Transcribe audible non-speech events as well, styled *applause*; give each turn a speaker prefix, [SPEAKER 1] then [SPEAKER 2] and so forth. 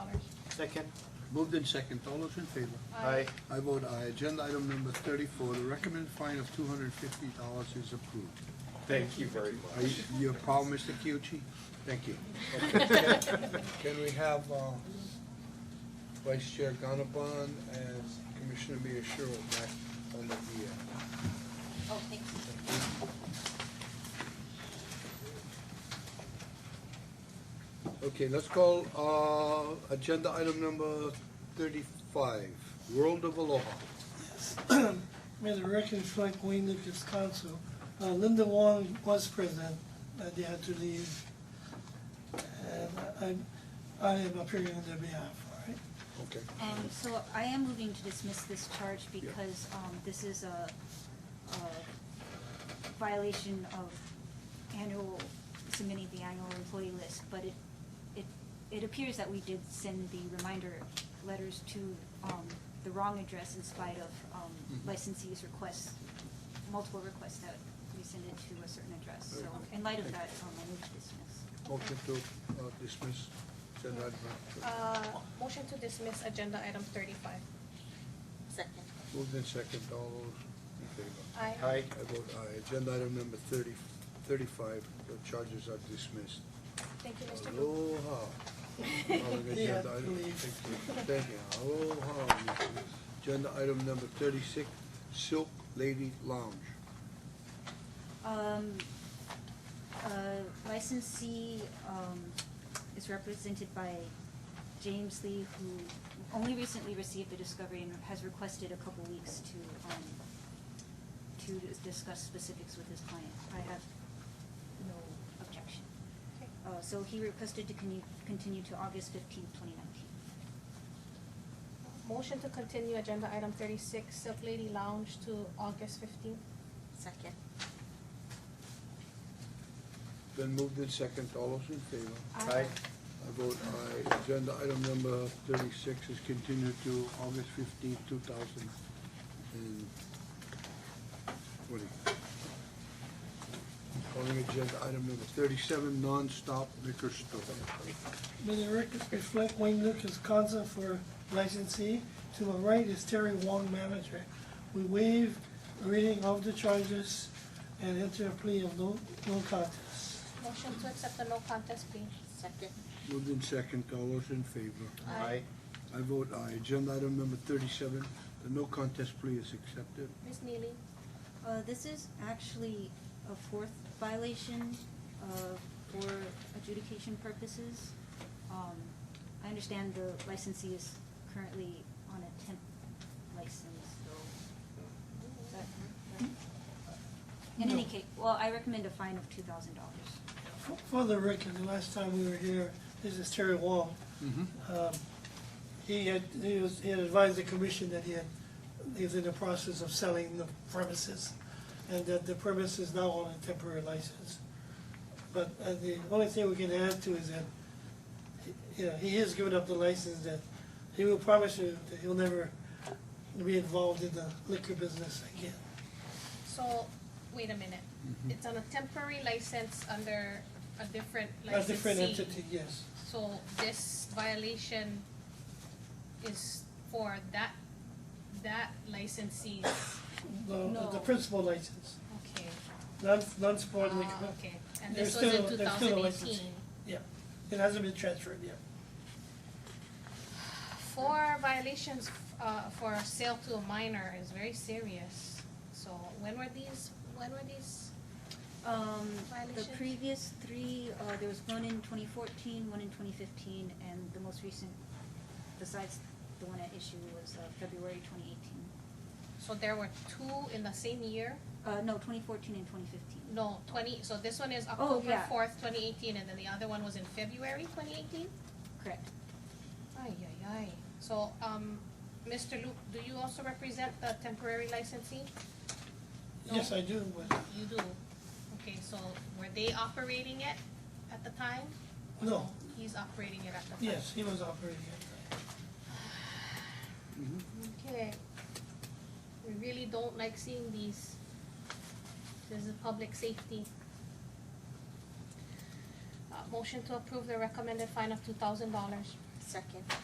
[SPEAKER 1] Second.
[SPEAKER 2] Moved in second, all those in favor?
[SPEAKER 1] Aye.
[SPEAKER 2] I vote aye. Agenda item number thirty-four, the recommended fine of two hundred and fifty dollars is approved.
[SPEAKER 1] Thank you very much.
[SPEAKER 2] Are you, you have a problem, Mr. Kyuchi? Thank you. Can we have, uh, Vice Chair Ganabon and Commissioner Miyashiro back on the, uh,
[SPEAKER 3] Oh, thank you.
[SPEAKER 2] Okay, let's call, uh, agenda item number thirty-five, World of Aloha.
[SPEAKER 4] May the record reflect Wayne Lucas Council. Uh, Linda Wong was present, uh, they had to leave. And I, I am appearing on their behalf, all right?
[SPEAKER 2] Okay.
[SPEAKER 3] And Um, so I am moving to dismiss this charge because um, this is a a violation of annual, submitting the annual employee list. But it, it, it appears that we did send the reminder letters to um, the wrong address in spite of um,
[SPEAKER 2] Mhm.
[SPEAKER 3] licensees' requests, multiple requests that we send it to a certain address. So
[SPEAKER 2] Very good.
[SPEAKER 3] in light of
[SPEAKER 2] Thank
[SPEAKER 3] that, um, I move to dismiss.
[SPEAKER 2] Motion to uh, dismiss agenda item. number-
[SPEAKER 5] Uh, motion to dismiss agenda item thirty-five.
[SPEAKER 3] Second.
[SPEAKER 2] Moved in second, all those in favor?
[SPEAKER 5] Aye.
[SPEAKER 1] Aye.
[SPEAKER 2] I vote aye. Agenda item number thirty, thirty-five, the charges are dismissed.
[SPEAKER 5] Thank you, Mr. Luke.
[SPEAKER 2] Aloha. Calling agenda
[SPEAKER 4] *laughs* Yeah,
[SPEAKER 2] item-
[SPEAKER 4] please.
[SPEAKER 2] Thank you. Thank you. Aloha. Mr. Agenda item number thirty-six, Silk Lady Lounge.
[SPEAKER 3] Um, uh, licensee, um, is represented by James Lee, who only recently received the discovery and has requested a couple weeks to, um, to dis- discuss specifics with his client. I have no objection.
[SPEAKER 5] Okay.
[SPEAKER 3] Uh, so he requested to continue, continue to August fifteenth, twenty nineteen.
[SPEAKER 5] *laughs* Motion to continue agenda item thirty-six, Silk Lady Lounge to August fifteenth.
[SPEAKER 3] Second.
[SPEAKER 2] Then moved in second, all those in favor?
[SPEAKER 1] Aye.
[SPEAKER 2] I vote aye. Agenda item number thirty-six is continued to August fifteenth, two thousand and twenty. Calling agenda item number thirty-seven, non-stop liquor store.
[SPEAKER 4] May the record reflect Wayne Lucas Council for licensee. To my right is Terry Wong, manager. We waive reading of the charges and enter a plea of no, no contest.
[SPEAKER 5] Motion to accept the no contest plea. Second.
[SPEAKER 2] Moved in second, all those in favor?
[SPEAKER 1] Aye.
[SPEAKER 2] I vote aye. Agenda item number thirty-seven, the no contest plea is accepted.
[SPEAKER 5] Ms. Neely,
[SPEAKER 3] Uh, this is actually a fourth violation, uh, for adjudication purposes. Um, I understand the licensee is currently on a temp license, so. Does that work? In any case, well, I recommend a fine of two thousand dollars.
[SPEAKER 4] For- For the record, the last time we were here, this is Terry Wong.
[SPEAKER 2] Mm-hmm.
[SPEAKER 4] Um, He had, he was, he had advised the commission that he had, he was in the process of selling the premises, and that the premise is now on a temporary license. But uh, the only thing we can add to is that, he- you know, he has given up the license that, he will promise you that he'll never be involved in the liquor business again.
[SPEAKER 5] so, wait a minute.
[SPEAKER 4] Mm-hmm.
[SPEAKER 5] It's on a temporary license under a different
[SPEAKER 4] A
[SPEAKER 5] licensee.
[SPEAKER 4] different entity, yes.
[SPEAKER 5] So this violation is for that, that licensee's,
[SPEAKER 4] The, the- the
[SPEAKER 5] No.
[SPEAKER 4] principal license,
[SPEAKER 5] okay.
[SPEAKER 4] non, non-sport liquor.
[SPEAKER 5] Ah, okay, and
[SPEAKER 4] They're
[SPEAKER 5] this was in
[SPEAKER 4] still-
[SPEAKER 5] two
[SPEAKER 4] they're still
[SPEAKER 5] thousand
[SPEAKER 4] a
[SPEAKER 5] eighteen.
[SPEAKER 4] licensee. Yeah, it hasn't been transferred yet.
[SPEAKER 5] Four violations uh, for sale to a minor is very serious. So when were these, when were these?
[SPEAKER 3] Um, the
[SPEAKER 5] Violation?
[SPEAKER 3] previous three, uh, there was one in twenty fourteen, one in twenty fifteen, and the most recent, besides the one at issue, was, uh, February twenty eighteen.
[SPEAKER 5] So there were two in the same year?
[SPEAKER 3] Uh, no, twenty fourteen and twenty fifteen.
[SPEAKER 5] No, twenty, so this one is
[SPEAKER 3] Oh,
[SPEAKER 5] October
[SPEAKER 3] yeah.
[SPEAKER 5] fourth, twenty eighteen, and then the other one was in February twenty eighteen?
[SPEAKER 3] Correct.
[SPEAKER 5] Ay, ay, ay. So, um, Mr. Luke, do you also represent the temporary licensee? No.
[SPEAKER 4] Yes, I do, but,
[SPEAKER 5] You do. Okay, so were they operating it at the time? Or
[SPEAKER 4] No.
[SPEAKER 5] He's operating it at the time?
[SPEAKER 4] yes, he was operating it.
[SPEAKER 5] Okay. We really don't like seeing these. This is public safety. Uh, motion to approve the recommended fine of two thousand dollars.
[SPEAKER 3] Second.